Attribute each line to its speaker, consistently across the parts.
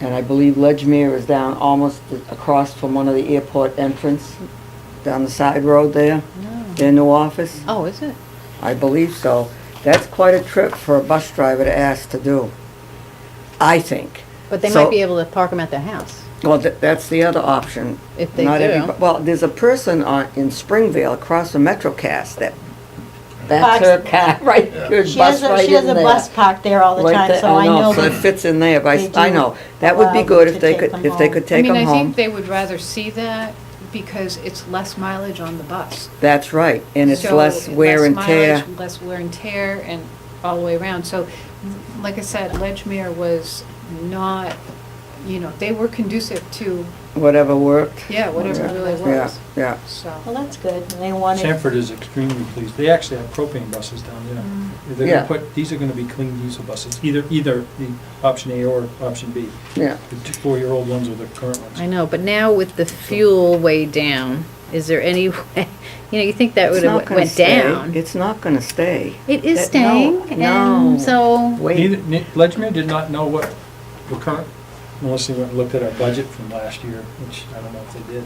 Speaker 1: And I believe Ledgemere is down almost across from one of the airport entrance, down the side road there, their new office.
Speaker 2: Oh, is it?
Speaker 1: I believe so. That's quite a trip for a bus driver to ask to do, I think.
Speaker 2: But they
Speaker 1: So-
Speaker 2: might be able to park them at their house.
Speaker 1: Well, th- that's the other option.
Speaker 2: If they
Speaker 1: Not
Speaker 2: do.
Speaker 1: everybo- Well, there's a person on, in Springvale across from MetroCast that, that's
Speaker 3: Parks-
Speaker 1: her car, right,
Speaker 4: Yeah.
Speaker 1: her
Speaker 3: She
Speaker 1: bus
Speaker 3: has a,
Speaker 1: right
Speaker 3: she has
Speaker 1: in
Speaker 3: a
Speaker 1: there.
Speaker 3: bus parked there all the
Speaker 1: Right
Speaker 3: time,
Speaker 1: there.
Speaker 3: so I know
Speaker 1: So it
Speaker 3: that.
Speaker 1: fits in there, but I,
Speaker 3: they
Speaker 1: s- I
Speaker 3: do
Speaker 1: know. That would
Speaker 3: allow
Speaker 1: be
Speaker 3: them
Speaker 1: good
Speaker 3: to
Speaker 1: if they
Speaker 3: take
Speaker 1: could,
Speaker 3: them
Speaker 1: if they
Speaker 3: home.
Speaker 1: could take
Speaker 5: I
Speaker 1: them
Speaker 5: mean, I think
Speaker 1: home.
Speaker 5: they would rather see that because it's less mileage on the bus.
Speaker 1: That's right, and it's
Speaker 5: So,
Speaker 1: less wear and tear.
Speaker 5: mileage, Less wear and tear and all the way around. So, m- like I said, Ledgemere was not, you know, they were conducive to,
Speaker 1: Whatever worked.
Speaker 5: yeah, whatever
Speaker 1: Yeah,
Speaker 5: really
Speaker 1: Yeah,
Speaker 5: works.
Speaker 1: yeah.
Speaker 3: Well,
Speaker 5: So,
Speaker 3: that's good, and they wanted.
Speaker 6: Sanford is extremely pleased. They actually have propane buses down
Speaker 2: Mm.
Speaker 6: there. They're
Speaker 1: Yeah.
Speaker 6: gonna put, these are gonna be clean diesel buses, either, either the option A or option B.
Speaker 1: Yeah.
Speaker 6: The two four-year-old ones or the current ones.
Speaker 2: I know, but now with the fuel way down, is there any, way? you know, you think that
Speaker 1: It's
Speaker 2: would
Speaker 1: not
Speaker 2: have
Speaker 1: gonna
Speaker 2: went
Speaker 1: stay.
Speaker 2: down.
Speaker 1: It's not gonna stay.
Speaker 2: It is
Speaker 1: That- no,
Speaker 2: staying,
Speaker 1: no.
Speaker 2: and so,
Speaker 6: Neither,
Speaker 1: Wait,
Speaker 6: ne- Ledgmere did not know what the current, unless they went and looked at our budget from last year, which I don't know if they did,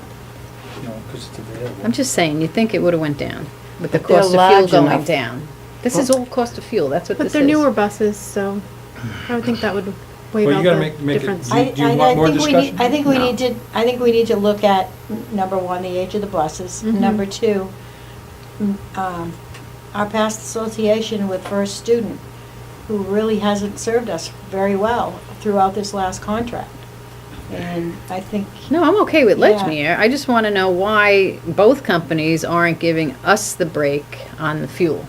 Speaker 6: you know, because it's available.
Speaker 2: I'm just saying, you think it would have went down with the
Speaker 1: But they're
Speaker 2: cost of
Speaker 1: large
Speaker 2: fuel going
Speaker 1: enough.
Speaker 2: down. This is all cost of fuel, that's what this
Speaker 7: But
Speaker 2: is.
Speaker 7: they're newer buses, so I would think that would
Speaker 6: Well,
Speaker 7: waive
Speaker 6: you
Speaker 7: out
Speaker 6: gotta
Speaker 7: the
Speaker 6: make- make it-
Speaker 7: difference.
Speaker 6: Do you-
Speaker 3: I-
Speaker 6: do you
Speaker 3: I-
Speaker 6: want
Speaker 3: I
Speaker 6: more
Speaker 3: think we need- I
Speaker 6: discussion?
Speaker 3: think we
Speaker 2: No.
Speaker 3: need to, I think we need to look at, n- number one, the age of the buses.
Speaker 1: Mm-hmm.
Speaker 7: Mhm.
Speaker 3: Number two, m- um, our past association with First Student, who really hasn't served us very well throughout this last contract. And I think.
Speaker 2: No, I'm okay with
Speaker 3: Yeah.
Speaker 2: Ledgmere. I just want to know why both companies aren't giving us the break on the fuel.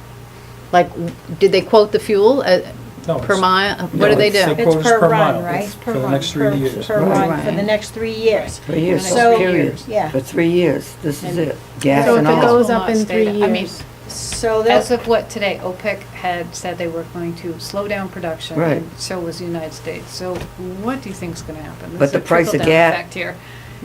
Speaker 2: Like, w- did they quote the fuel uh,
Speaker 6: No,
Speaker 2: per
Speaker 6: it's-
Speaker 2: mile?
Speaker 6: no,
Speaker 2: What do they
Speaker 6: it's
Speaker 2: do?
Speaker 6: the qu- quotas
Speaker 3: It's per
Speaker 6: per
Speaker 3: run,
Speaker 6: mile.
Speaker 3: right?
Speaker 6: It's
Speaker 3: Per
Speaker 6: for the
Speaker 3: run,
Speaker 6: next three
Speaker 3: per-
Speaker 6: years.
Speaker 3: Per run, for the
Speaker 2: Right.
Speaker 3: next three years.
Speaker 1: for years,
Speaker 3: So-
Speaker 1: period.
Speaker 3: Yeah.
Speaker 1: For three years, this is
Speaker 3: And-
Speaker 1: it, gas
Speaker 7: So
Speaker 1: and
Speaker 7: if it
Speaker 1: all.
Speaker 7: goes
Speaker 5: Will
Speaker 7: up in
Speaker 5: not stay
Speaker 7: three
Speaker 5: that- I mean,
Speaker 7: years.
Speaker 3: So
Speaker 5: As
Speaker 3: that's,
Speaker 5: of what today, OPEC had said they were going to slow down production.
Speaker 1: Right.
Speaker 5: and So was the United States. So what do you think's gonna happen?
Speaker 1: But
Speaker 5: There's
Speaker 1: the
Speaker 5: a
Speaker 1: price of
Speaker 5: trickle-down
Speaker 1: gas-
Speaker 5: effect here.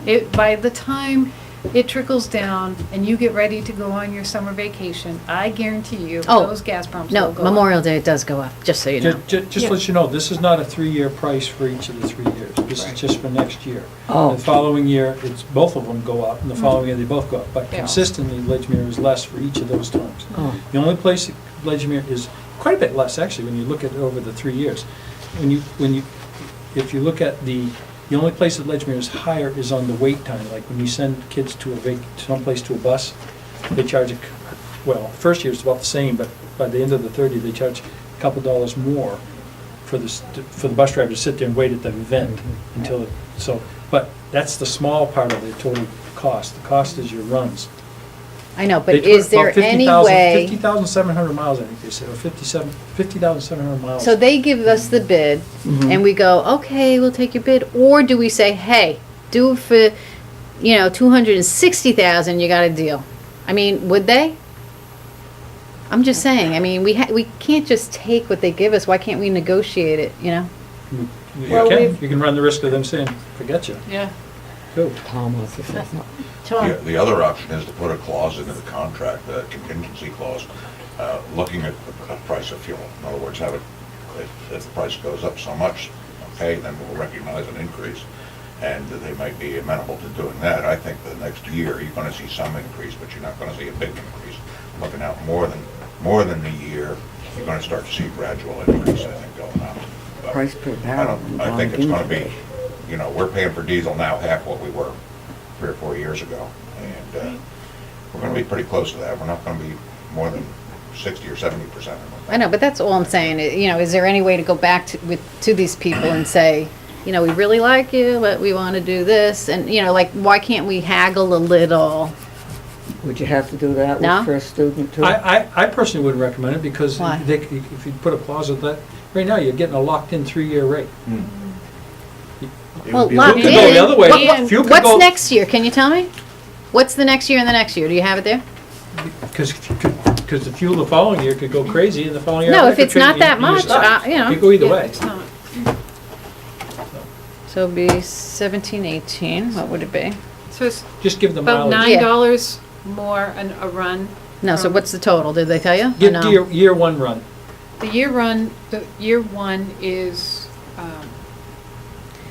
Speaker 5: It, by the time it trickles down and you get ready to go on your summer vacation, I guarantee you,
Speaker 2: Oh,
Speaker 5: those gas pumps will
Speaker 2: No,
Speaker 5: go up.
Speaker 2: Memorial Day it does go up, just so you know.
Speaker 6: Ju- ju- Just let you know, this is not a three-year price for each of the three years. This is just for next year.
Speaker 1: Oh.
Speaker 6: The following year, it's, both of them go up, and the following year, Mm-hmm. they both go up. But
Speaker 5: Yeah.
Speaker 6: consistently, Ledgmere is less for each of those terms.
Speaker 1: Oh.
Speaker 6: The only place that Ledgmere is quite a bit less, actually, when you look at it over the three years. When you, when you, if you look at the, the only place that Ledgmere is higher is on the wait time. Like when you send kids to a vac, someplace to a bus, they charge, a c- well, first year's about the same, but by the end of the third year, they charge a couple dollars more for the, s- for the bus driver to sit there and wait at the event until, it so, but that's the small part of the total cost. The cost is your runs.
Speaker 2: I know, but
Speaker 6: They took
Speaker 2: is there
Speaker 6: about 50,000
Speaker 2: any way,
Speaker 6: 50,700 miles, I think they said, or 57, 50,700 miles.
Speaker 2: so they give us the bid,
Speaker 6: Mm-hmm.
Speaker 2: and we go, okay, we'll take your bid, or do we say, hey, do it for, you know, two hundred and sixty thousand, you got a deal? I mean, would they? I'm just saying, I mean, we ha, we can't just take what they give us, why can't we negotiate it, you know?
Speaker 6: You you
Speaker 3: Well,
Speaker 6: can,
Speaker 3: we've-
Speaker 6: you can run the risk of them saying, forget you,
Speaker 5: Yeah.
Speaker 6: go.
Speaker 1: Tom wants to say something.
Speaker 3: Tom,
Speaker 4: The the other option is to put a clause into the contract, a contingency clause, uh, looking at the p- price of fuel. In other words, have it, if, if the price goes up so much, okay, then we'll recognize an increase, and they might be amenable to doing that. I think the next year, you're gonna see some increase, but you're not gonna see a big increase. Looking out more than, more than a year, you're gonna start to see gradual increase, I think, going out. But
Speaker 1: Price per
Speaker 4: I
Speaker 1: barrel.
Speaker 4: don't, I think it's gonna be, you know, we're paying for diesel now half what we were three or four years ago. And uh, we're gonna be pretty close to that. We're not gonna be more than sixty or seventy percent.
Speaker 2: I know, but that's all I'm saying, i- you know, is there any way to go back to, with, to these people and say, you know, we really like you, but we want to do this, and, you know, like, why can't we haggle a little?
Speaker 1: Would you have to do that
Speaker 2: No?
Speaker 1: with first student too?
Speaker 6: I, I, I personally wouldn't recommend it because
Speaker 2: Why?
Speaker 6: they, c- if you put a clause of that, right now, you're getting a locked-in three-year rate.
Speaker 2: Well,
Speaker 6: Fuel
Speaker 2: locked
Speaker 6: could
Speaker 2: in.
Speaker 6: go the other way.
Speaker 2: What- what-
Speaker 6: Fuel could go-
Speaker 2: What's next year, can you tell me? What's the next year and the next year, do you have it there?
Speaker 6: Because, because the fuel the following year could go crazy and the following year.
Speaker 2: No,
Speaker 6: I
Speaker 2: if
Speaker 6: could
Speaker 2: it's not
Speaker 6: change-
Speaker 2: that
Speaker 6: you just
Speaker 2: much,
Speaker 6: stop.
Speaker 2: uh, you know.
Speaker 6: It go either
Speaker 5: Yeah,
Speaker 6: way.
Speaker 5: It's not.
Speaker 2: So it'd be seventeen, eighteen, what would it be?
Speaker 5: So it's
Speaker 6: Just give them
Speaker 5: about
Speaker 6: mileage.
Speaker 5: nine dollars more an, a run. Um,
Speaker 2: No, so
Speaker 5: from-
Speaker 2: what's the total, did they tell Um, you? Or
Speaker 6: Give
Speaker 2: no?
Speaker 6: year, year one run.
Speaker 5: The year run, the year one is um,